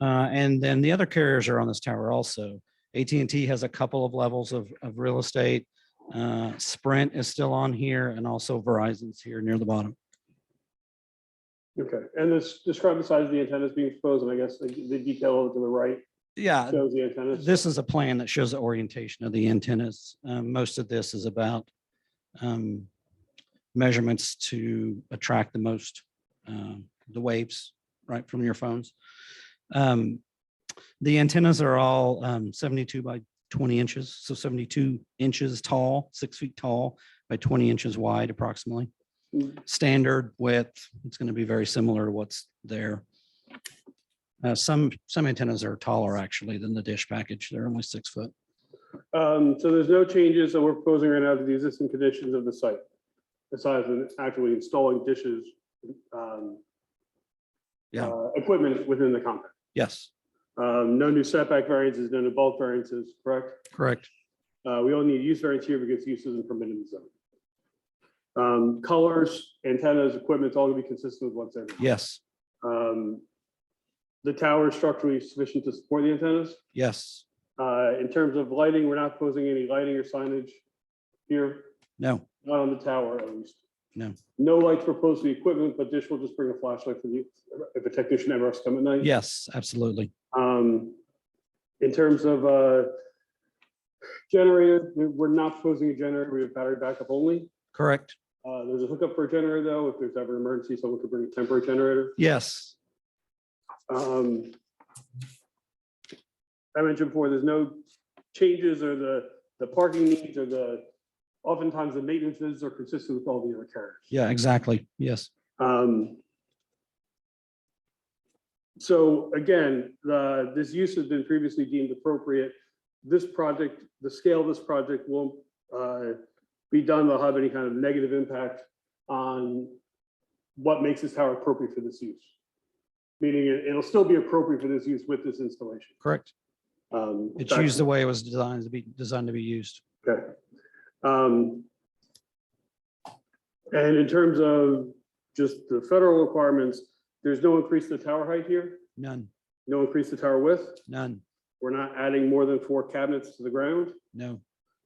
Uh, and then the other carriers are on this tower also. AT&T has a couple of levels of, of real estate. Uh, Sprint is still on here and also Verizon's here near the bottom. Okay, and this, describe the size of the antennas being exposed, and I guess like, the detail over to the right Yeah, shows the antennas. this is a plan that shows the orientation of the antennas. Um, most of this is about um, measurements to attract the most, um, the waves, right, from your phones. Um, The antennas are all um, 72 by 20 inches, so 72 inches tall, six feet tall by 20 inches wide approximately. Standard width, it's going to be very similar to what's there. Uh, some, some antennas are taller actually than the dish package. They're only six foot. Um, so there's no changes that we're proposing right now to the existing conditions of the site, besides than actually installing dishes. um, Yeah. uh, Equipment within the compound. Yes, Um, no new setback variances, no new bulk variances, correct? correct. Uh, we only need use variance here because use isn't permitted in the zone. Um, colors, antennas, equipment, it's all gonna be consistent with what's there. now. Yes, Um, The tower is structurally sufficient to support the antennas. yes, Uh, In terms of lighting, we're not posing any lighting or signage here, no, not on the tower at least. No. No lights proposed for the equipment, but Dish will just bring a flashlight for the, if a technician ever has to come at night. yes, absolutely. Um, In terms of uh, generator, we- we're not proposing a generator, we have battery backup only. Correct. Uh, There's a hookup for a generator though, if there's ever an emergency, someone could bring a temporary generator. Yes, Um, I mentioned before, there's no changes or the, the parking needs or the, oftentimes the maintenances are consistent with all the other carriers. yeah, exactly. Yes, Um, So again, the, this use has been previously deemed appropriate. This project, the scale of this project won't uh, be done, will have any kind of negative impact on what makes this tower appropriate for this use. Meaning it- it'll still be appropriate for this use with this installation. correct. Um, It's used the way it was designed to be, designed to be used. Okay. Um, And in terms of just the federal requirements, there's no increase to tower height here, None, no increase to tower width. none, We're not adding more than four cabinets to the ground. no,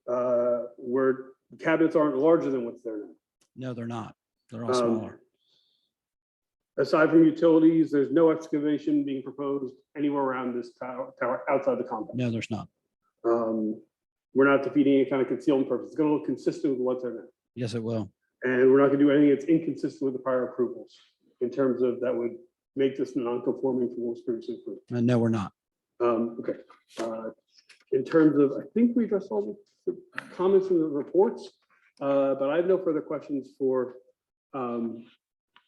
Uh, Where cabinets aren't larger than what's there. now. no, they're not. They're all Um, smaller. Aside from utilities, there's no excavation being proposed anywhere around this tower, tower outside the compound. No, there's not. Um, We're not defeating any kind of concealment purpose. It's going to look consistent with what's there now. Yes, it will. And we're not gonna do anything that's inconsistent with the prior approvals in terms of that would make this non-conforming from what was previously approved. Uh, No, we're not. Um, okay, uh, in terms of, I think we addressed all the comments from the reports, uh, but I have no further questions for, um,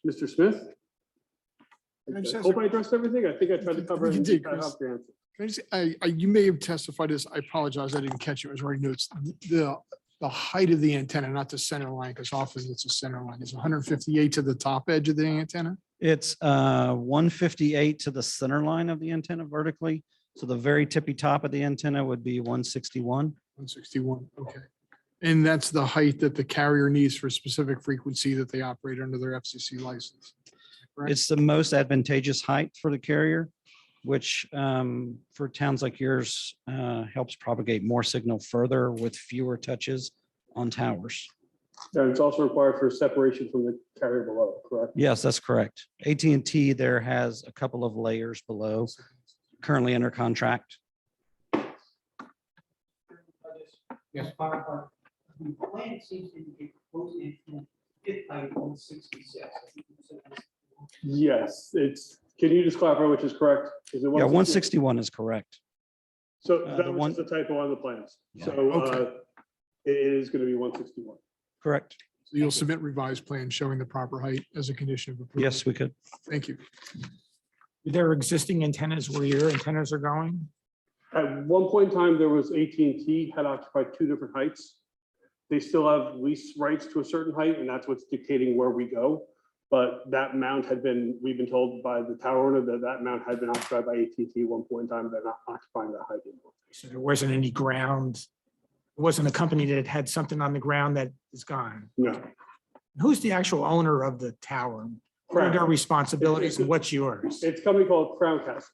Mr. Smith. I'm I sorry, hope sir. I addressed everything. I think I tried to cover. it You and did, got Chris. off the answer. Can I just, I, I, you may have testified this. I apologize. I didn't catch it. It was already notes. The, the height of the antenna, not the center line, because often it's a center line. It's hundred and fifty-eight to the top edge of the antenna. It's uh, 158 to the center line of the antenna vertically. So the very tippy top of the antenna would be 161. One sixty-one, okay. And that's the height that the carrier needs for a specific frequency that they operate under their FCC license. Right. It's the most advantageous height for the carrier, which um, for towns like yours uh, helps propagate more signal further with fewer touches on towers. And it's also required for separation from the carrier below, correct? Yes, that's correct. at and T there has a couple of layers below, currently under contract. Yes. clarify, the plan seems to indicate proposed intent fifth by one sixty-six. Yes, it's, can you just clarify which is correct? Is it Yeah, 160? 161 is correct. So Uh, the that one- was just a typo on the plans. Yeah. So Okay. uh, it it is going to be one sixty-one. Correct. So You'll submit revised plans showing the proper height as a condition of approval. Yes, we could. Thank you. There are existing antennas where your antennas are going? At one point in time, there was AT&T had occupied two different heights. They still have lease rights to a certain height, and that's what's dictating where we go. But that mount had been, we've been told by the tower owner that that mount had been occupied by AT&T at one point in time. They're not occupying that height anymore. So there wasn't any ground, it wasn't a company that had something on the ground that is gone. No. Who's the actual owner of the tower? What are their Crown. responsibilities and what's yours? It's a company called Crown Castle.